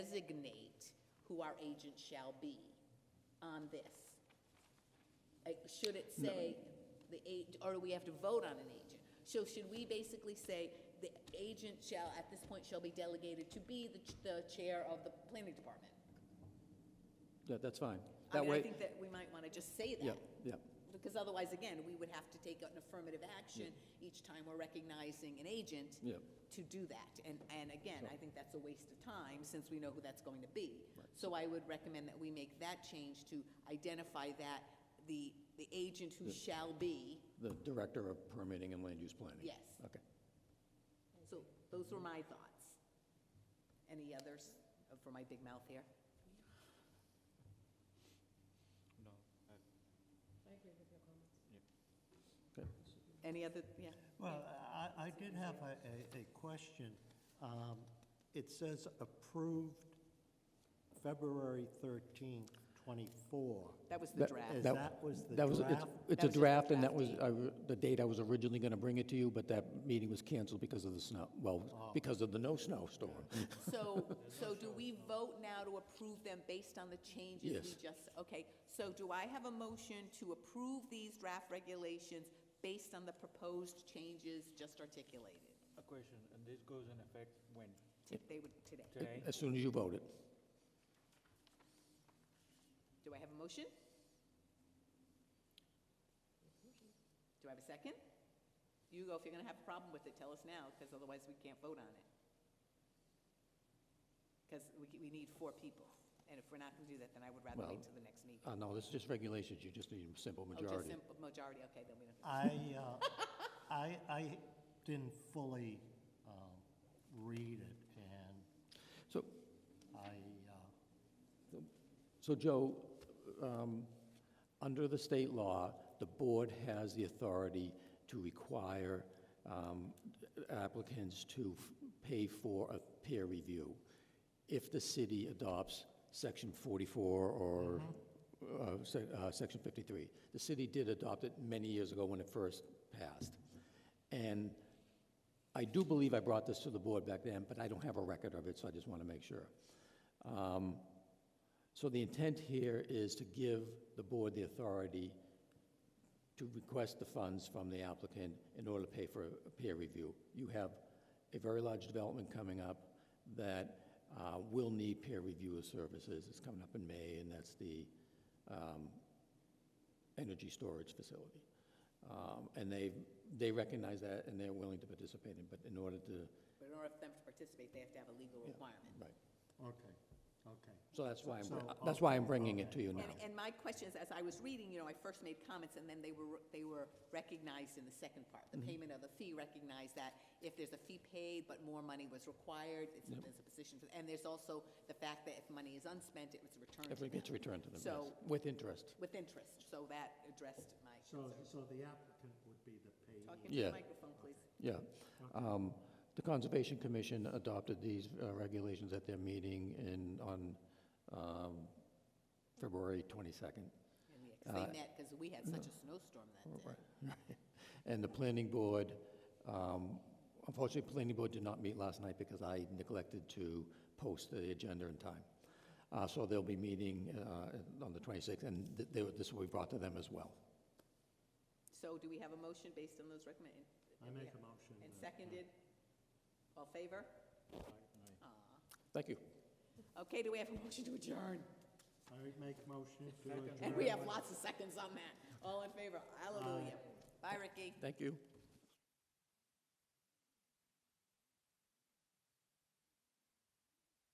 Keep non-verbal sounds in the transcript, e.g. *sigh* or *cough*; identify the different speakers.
Speaker 1: designate who our agent shall be on this? Like, should it say the age, or do we have to vote on an agent? So should we basically say the agent shall, at this point, shall be delegated to be the, ch- the chair of the planning department?
Speaker 2: Yeah, that's fine.
Speaker 1: I
Speaker 2: That
Speaker 1: mean, I
Speaker 2: way,
Speaker 1: think that we might want to just say
Speaker 2: yeah,
Speaker 1: that.
Speaker 2: yeah,
Speaker 1: Because otherwise, again, we would have to take an affirmative action each time we're recognizing an agent
Speaker 2: yeah.
Speaker 1: to do that. And, and again, I think that's a waste of time since we know who that's going to be. So I would recommend that we make that change to identify that, the, the agent who shall be,
Speaker 2: The Director of Permitting and Land Use Planning.
Speaker 1: yes.
Speaker 2: Okay.
Speaker 1: So those were my thoughts. Any others uh, for my big mouth here?
Speaker 3: No, I,
Speaker 1: Any other, yeah?
Speaker 4: Well, I, I did have a, a, a question. Um, It says approved February thirteenth, twenty-four.
Speaker 1: That was the
Speaker 2: That-
Speaker 1: draft.
Speaker 4: As
Speaker 2: That-
Speaker 4: that was the
Speaker 2: That was, it's-
Speaker 4: draft?
Speaker 2: it's
Speaker 1: That
Speaker 2: a
Speaker 1: was just a
Speaker 2: draft, and that was
Speaker 1: draft
Speaker 2: I re- the date I was originally going to bring it to you, but that meeting was canceled because of the snow, well,
Speaker 4: Oh.
Speaker 2: because of the no snowstorm.
Speaker 1: So, so do we vote now to approve them based on the changes we
Speaker 2: Yes.
Speaker 1: just, okay, so do I have a motion to approve these draft regulations based on the proposed changes just articulated?
Speaker 3: a question, and this goes in effect when?
Speaker 1: T- They would, today.
Speaker 3: Today?
Speaker 2: As soon as you vote it.
Speaker 1: Do I have a motion? Do I have a second? Hugo, if you're gonna have a problem with it, tell us now, because otherwise we can't vote on it. Because we, we need four people, and if we're not gonna do that, then I would rather wait
Speaker 2: Well,
Speaker 1: till the next meeting.
Speaker 2: Uh, No, this is just regulations, you just need a simple
Speaker 1: Oh, just
Speaker 2: majority.
Speaker 1: simple majority, okay, then we don't.
Speaker 4: I, uh, I, I didn't fully um, read it, and
Speaker 2: So,
Speaker 4: I, uh,
Speaker 2: so Joe, um, under the state law, the board has the authority to require um, applicants to f- pay for a peer review if the city adopts Section 44 or uh, se- uh, Section 53. The city did adopt it many years ago when it first passed. And I do believe I brought this to the board back then, but I don't have a record of it, so I just want to make sure. Um, So the intent here is to give the board the authority to request the funds from the applicant in order to pay for a peer review. You have a very large development coming up that uh, will need peer review of services. It's coming up in May, and that's the um, energy storage facility. Um, And they, they recognize that, and they're willing to participate in, but in order to,
Speaker 1: But in order for them to participate, they have to have a legal requirement.
Speaker 2: right.
Speaker 4: okay, okay.
Speaker 2: So that's why I'm, br-
Speaker 4: So,
Speaker 2: that's why I'm bringing it to you now.
Speaker 1: And, and my question is, as I was reading, you know, I first made comments, and then they were, they were recognized in the second part. The
Speaker 2: Mm-hmm.
Speaker 1: payment of the fee recognized that if there's a fee paid, but more money was required, it's, there's a position, for- and there's also the fact that if money is unspent, it was returned to
Speaker 2: If it gets
Speaker 1: them
Speaker 2: returned to them, yes,
Speaker 1: So-
Speaker 2: with interest.
Speaker 1: with interest, so that addressed my
Speaker 4: So,
Speaker 1: concern.
Speaker 4: so the applicant would be the payee?
Speaker 1: Talking
Speaker 2: Yeah.
Speaker 1: to the microphone, please.
Speaker 2: Yeah. Um, The Conservation Commission adopted these uh, regulations at their meeting in, on um, February *laughs* 22nd.
Speaker 1: And we-
Speaker 2: Uh,
Speaker 1: 'cause They met, because we had such a snowstorm
Speaker 2: Mm.
Speaker 1: that day.
Speaker 2: And the planning board, um, unfortunately, planning board did not meet last night because I neglected to post the agenda in time. Uh, So they'll be meeting uh, on the 26th, and th- they were- this will be brought to them as well.
Speaker 1: So do we have a motion based on those recommend?
Speaker 4: I make a motion.
Speaker 1: And
Speaker 4: that-
Speaker 1: seconded? All favor?
Speaker 2: Thank you.
Speaker 1: Okay, do we have a motion to adjourn?
Speaker 4: I make a motion to adjourn.
Speaker 1: And we have lots of seconds on that. All in favor? Hallelujah. Bye, Ricky.
Speaker 2: Thank you.